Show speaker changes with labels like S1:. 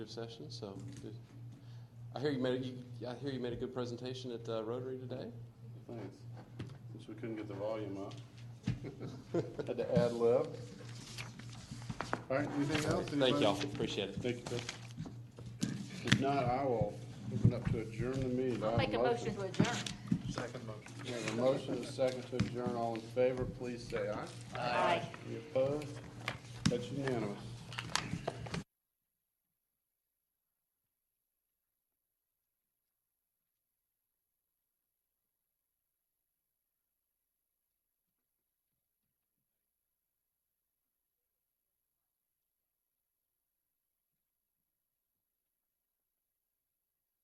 S1: session, so good. I hear you made, a- you- I hear you made a good presentation at uh, Rotary today.
S2: Thanks. Since we couldn't get the volume up. Had to add lib. All right, anything else?
S1: Thank
S2: Anybody?
S1: y'all, appreciate it.
S2: Thank you, Chris. If not, I will open up to adjourn the meeting. I have
S3: Make a motion to adjourn.
S2: We have a motion and a second to adjourn. All in favor, please say aye.
S3: Aye.
S2: Any opposed? That's unanimous.